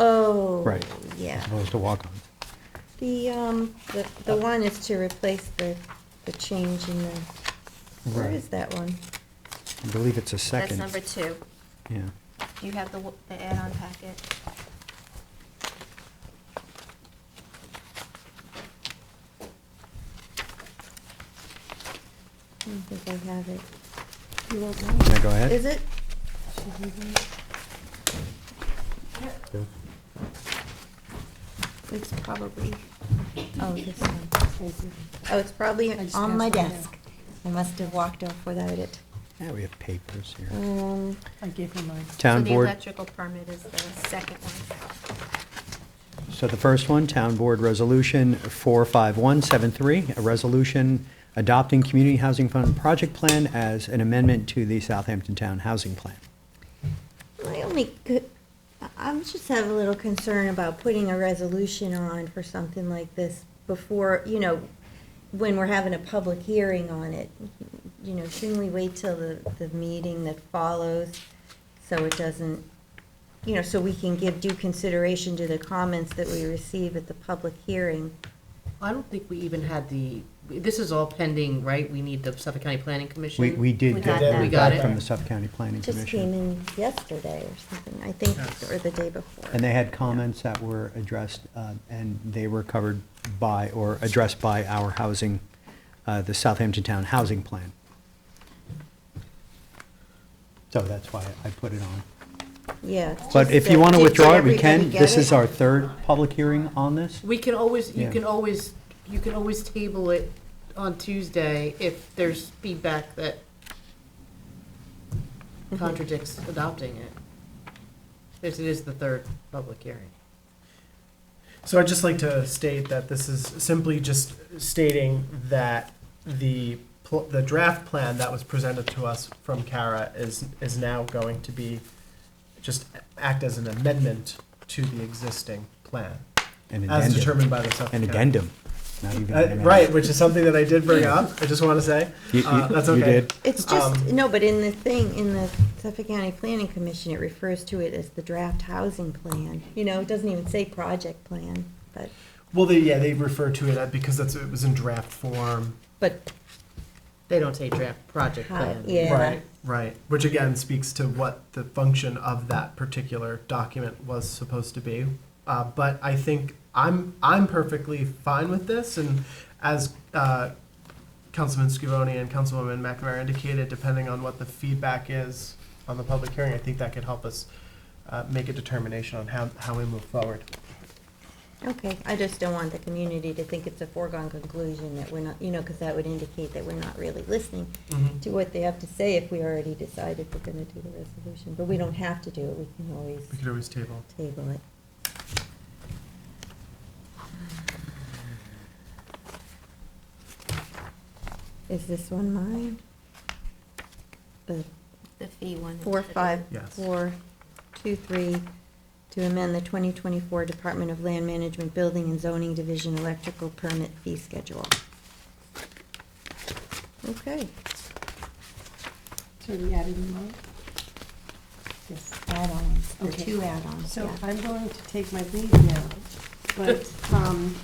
Oh. Right. Yeah. as opposed to Uh, walk-on. The, um, the, the one is to replace the, the change in the, where Right. is that one? I believe it's a That's second. number two. Yeah. Do you have the, w- the add-on packet? I don't think I have it. Can I go ahead? Is it? Mm-hmm. It's probably, oh, this one. Oh, it's probably I just on my passed mine down. desk. I must have walked off without it. Yeah, we have papers here. Um, I gave him mine. Town So Mm. the board, electrical permit is the second one. so the first one, Town Board Resolution 45173, a resolution adopting Community Housing Fund Project Plan as an amendment to the Southampton Town Housing Plan. My only, co- I- I'm just have a little concern about putting a resolution on for something like this before, you know, when we're having a public hearing on it. You know, shouldn't we wait till the, the meeting that follows so it doesn't, you know, so we can give due consideration to the comments that we receive at the public hearing? I don't think we even had the, this is all pending, right? We need the Suffolk County Planning Commission. We, we did We get got that. We that got back it. from the Suffolk County Planning It Just came Commission. in yesterday or something, I think, or the day before. And they had comments that were addressed, uh, and they were covered by, or addressed by our housing, uh, the Southampton Town Housing Plan. So that's why I put it on. Yeah. it's But just if you that- want to did- did withdraw it, we everybody can. get This is it? our third public hearing on this. We can always, you Yeah. can always, you can always table it on Tuesday if there's feedback that contradicts adopting it. Because it is the third public hearing. So I'd just like to state that this is simply just stating that the, pl- the draft plan that was presented to us from Kara is, is now going to be, just act as an amendment to the existing plan, An as addendum. determined by the Suffolk An County. addendum. Not even an Uh, amendment. Right, which is something that I did bring up, I just want to say. You- you- Uh, that's you okay. did. It's just, Um, no, but in the thing, in the Suffolk County Planning Commission, it refers to it as the draft housing plan. You know, it doesn't even say project plan, but, Well, they, yeah, they refer to it uh, because that's, it was in draft form. but, They don't say draft project Hi- plan. yeah. Right, right, which again speaks to what the function of that particular document was supposed to be. Uh, but I think I'm I'm perfectly fine with this, and as uh, Councilman Scavone and Councilwoman McNamara indicated, depending on what the feedback is on the public hearing, I think that could help us uh, make a determination on how, how we move forward. okay. I just don't want the community to think it's a foregone conclusion that we're not, you know, because that would indicate that we're not really listening Mm-hmm. to what they have to say if we already decided we're going to do the resolution. But we don't have to do it, we can always We could always table. table it. Is this one mine? The The fee one. is four, the- five, Yes. four, two, three, to amend the 2024 Department of Land Management Building and Zoning Division Electrical Permit Fee Schedule. Okay, So we added them all? Yes, add-ons, the two add-ons, So yeah. I'm going to take my leave now, but, um,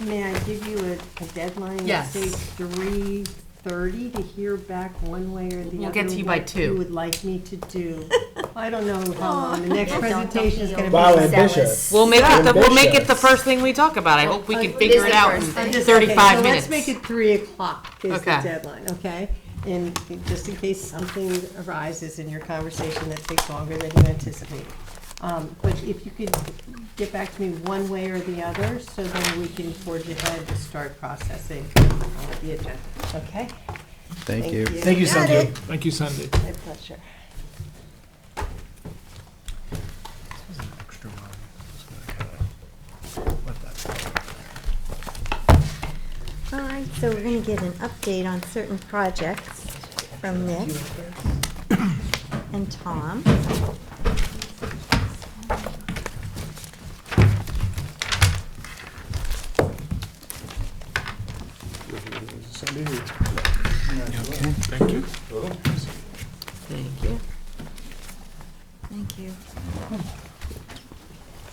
may I give you a, a deadline? Yes. Say three thirty to hear back one way or the other. We'll get to you by what two. You would like me to do. I don't know how long, the next Don't- don't presentation is gonna be. feel Wow, ambitious. We'll make it, the- we'll make it the Ambitious. first thing we talk about. I hope we Oh, can figure it out in I'm just- okay, thirty-five So let's make minutes. it three o'clock is the Okay. deadline, okay? And just in case something arises in your conversation that takes longer than you anticipate. Um, But if you could get back to me one way or the other, so then we can forge ahead to start processing uh, the agenda, okay? Thank you. Thank you, Got Sandy. it. Thank you, Sandy. My pleasure. Extra one. Just gonna kinda let that All right, so we're gonna get an update on certain projects from Nick and Tom. Thank you.